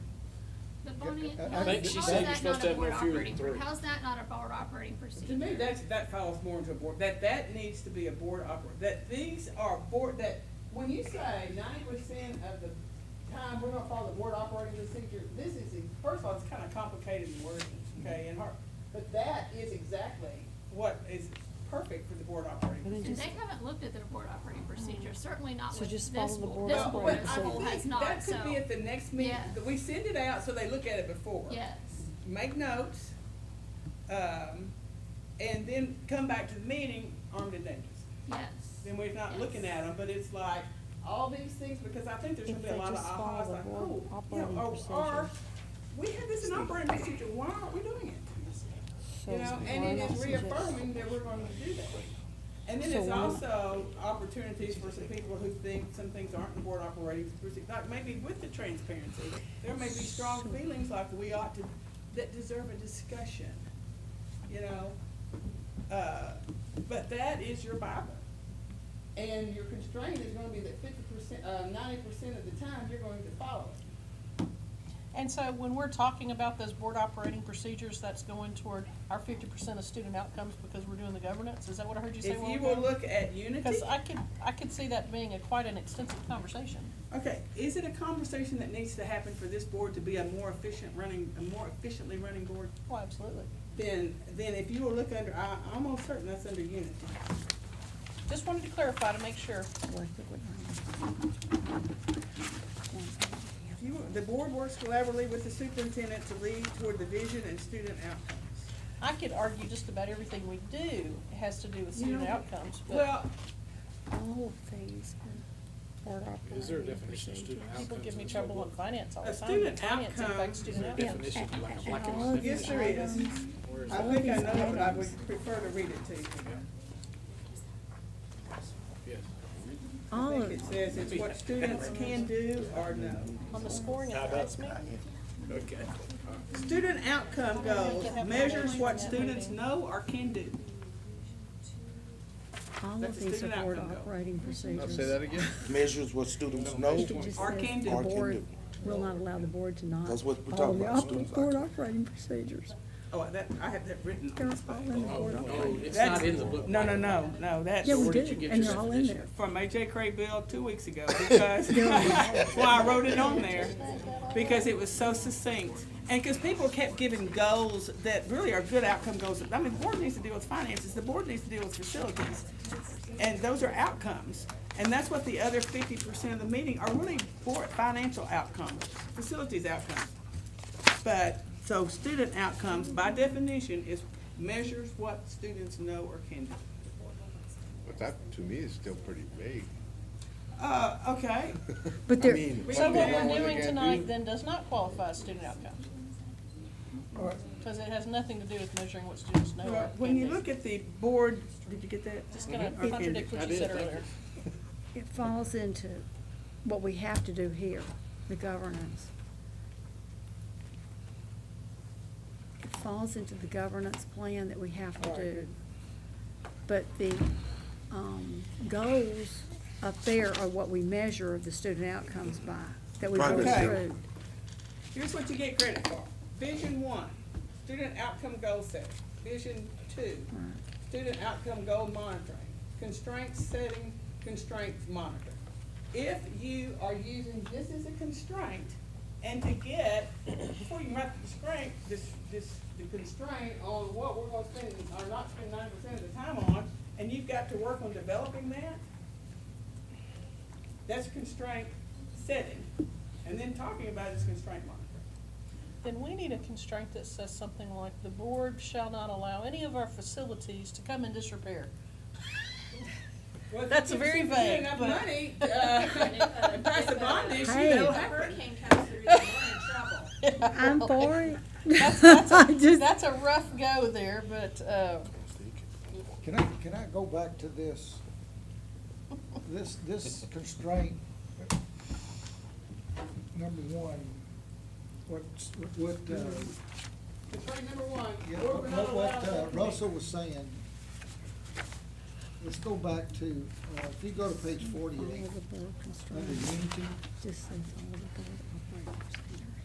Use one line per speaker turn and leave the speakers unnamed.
county.
I- I
how-
think she
how is
said
that
you're
not
supposed
a
to have no
board
fewer than
operating pr-
three.
How's that not a board operating procedure?
To me, that's, that falls more into a board, that, that needs to be a board oper, that these are board, that, when you say ninety percent of the time, we're gonna follow the board operating procedure, this is, first of all, it's kinda complicated in wording, okay, and hard, but that is exactly what is perfect for the board operating
But then
procedure.
And
just-
They haven't looked at their board operating procedure, certainly not
So
with this
just
board, this
follow the board
Well,
board,
Oh. but
operating
this
I
procedure.
board has
think
not, so.
that could be at the next meeting,
Yeah.
that we send it out so they look at it before.
Yes,
make notes, um, and then come back to the meeting armed and dangerous.
yes.
Then we're not looking
Yes.
at them, but it's like all these things, because I think there's gonna
If
be a
they
lot of
just follow
ahas,
the
like,
board
oh, you know,
operating
or, or,
procedure.
we had this in operating procedure, why aren't we doing it?
So
You
it's
know,
why
and it
not
is
suggest-
reaffirming that we're gonna do that. And then
So
it's
why not-
also opportunities for some people who think some things aren't in the board operating procedure, like maybe with the transparency, there may be strong feelings like we ought to, that deserve a discussion, you know? Uh, But that is your Bible. And your constraint is gonna be that fifty percent, uh, ninety percent of the time, you're going to follow it.
And so when we're talking about those board operating procedures, that's going toward our fifty percent of student outcomes because we're doing the governance? Is that what I heard you say?
If
while
you
we're
will
gone?
look at unity.
Because I could, I could see that being a quite an extensive conversation.
Okay, is it a conversation that needs to happen for this board to be a more efficient running, a more efficiently running board?
Oh, absolutely.
Then, then if you will look under, I, I'm almost certain that's under unity.
Just wanted to clarify to make sure.
If you, the board works collaboratively with the superintendent to lead toward the vision and student outcomes.
I could argue just about everything we do has to do with
You
student
know,
outcomes, but
Well,
All things are board operating.
Is there a definition of student outcomes?
people give me
in this
trouble
whole
on
book?
finance all
A
the time. but
student
Finance
outcome-
impacts student
Is there a
outcomes.
definition, like a- like a
all of
yes,
definition?
there is.
Where is
I
that?
think I know, but I would prefer to read it to you.
Yes.
I think it says it's what students can do or no.
On the scoring and assessment,
Okay.
Student outcome goals measures what students know or can do.
All
That's
of
a
these
student
are board
outcome, though.
operating procedures.
again?
measures what students know.
It just
Or
says
can
the
do.
Or can
board
do.
Will not allow the board to not.
That's what we're
follow
talking
the
about,
op-
students'
Board
outcomes.
operating procedures.
Oh, that, I have that written on
They're
the
all
slide.
in the board
Oh, No,
operating.
it's
That's-
not in the book.
No, no, no, no, that's
Yeah, we
where did you
do,
get
and
your
they're all in there.
definition?
from AJ Craig Bill two weeks ago because, why I wrote it on there. Because it was so succinct and because people kept giving goals that really are good outcome goals. I mean, the board needs to deal with finances, the board needs to deal with facilities. And those are outcomes. And that's what the other fifty percent of the meeting are really board, financial outcomes, facilities outcomes. But, so student outcomes by definition is measures what students know or can do.
But that, to me, is still pretty vague.
Uh, okay,
But
I
there,
mean,
so
one
what
thing,
we're
one
doing
thing
tonight
can't do.
then does not qualify as student outcomes.
All right,
Because it has nothing to do with measuring what students know.
Well,
or
When you
can't do.
look at the board, did you get that? Mhm.
Just gonna
Okay.
contradict
I
what you
did,
said
thank you.
earlier.
it falls into what we have to do here, the governance. It falls into the governance plan that we have to do. But the, um, goals up there are what we measure the student outcomes by, that we go
Progress.
through.
Here's what you get credit for. Vision one, student outcome goal set. Vision two, student outcome goal monitoring. Constraint setting, constraints monitoring. If you are using this as a constraint, and to get, before you write the constraint, this, this, the constraint on what we're gonna spend, or not spend ninety percent of the time on, and you've got to work on developing that, that's constraint setting. And then talking about is constraint monitoring.
Then we need a constraint that says something like, the board shall not allow any of our facilities to come in disrepair.
Well, if
That's
you give
very
the city
vague,
Enough
but-
money, uh, and pass a bond issue,
Hey.
that'll
If a
happen.
hurricane comes through, they're in trouble.
I'm for it.
That's, that's,
I
a,
just-
that's a rough go there, but, uh,
can I, can I go back to this, this, this constraint? Number one, what's, what, uh,
Constraint number one,
Yeah,
we're
what,
not allowed
what uh,
to-
Russell was saying, let's go back to, uh, if you go to page
All
forty-eight,
of the board
under
constraints,
unity,
just says all of the board operating procedures.